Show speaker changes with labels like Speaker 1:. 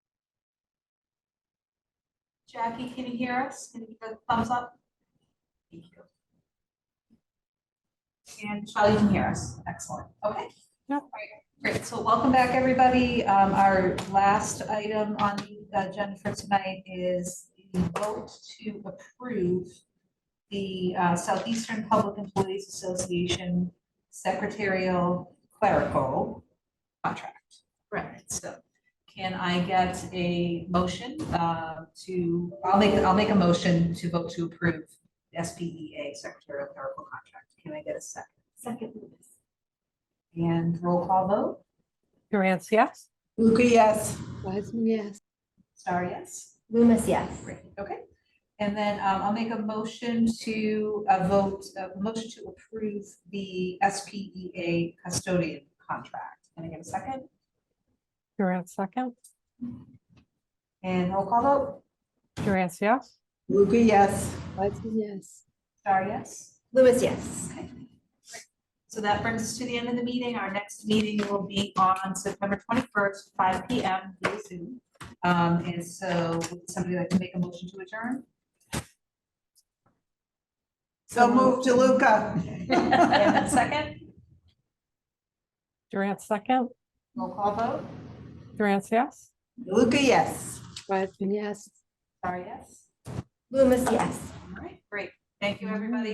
Speaker 1: Jackie, can you hear us? Can you give a thumbs up? Thank you. And Charlie, you can hear us. Excellent. Okay.
Speaker 2: Yep.
Speaker 1: Great. So welcome back, everybody. Um, Our last item on the agenda for tonight is the vote to approve the uh, Southeastern Public Employees Association Secretarial Clerical Contract. Right. So can I get a motion uh, to, I'll make, I'll make a motion to vote to approve the SPEA secretarial clerical contract. Can I get a second? Second. And roll call vote?
Speaker 2: Durant, yes?
Speaker 3: Luca, yes.
Speaker 4: Wiseman, yes.
Speaker 1: Star, yes?
Speaker 4: Loomis, yes.
Speaker 1: Great, okay. And then um, I'll make a motion to uh, vote, a motion to approve the SPEA custodian contract. Can I get a second?
Speaker 2: Durant, second?
Speaker 1: And roll call vote?
Speaker 2: Durant, yes?
Speaker 3: Luca, yes.
Speaker 4: Wiseman, yes.
Speaker 1: Star, yes?
Speaker 4: Loomis, yes.
Speaker 1: Okay. So that brings us to the end of the meeting. Our next meeting will be on September twenty-first, five P M, via Zoom. Um, and so would somebody like to make a motion to adjourn?
Speaker 3: So move to Luca.
Speaker 1: And a second,
Speaker 2: Durant, second?
Speaker 1: roll call vote,
Speaker 2: Durant, yes?
Speaker 3: Luca, yes.
Speaker 4: Wiseman, yes.
Speaker 1: sorry, yes.
Speaker 4: Loomis, yes.
Speaker 1: All right, great. Thank you, everybody.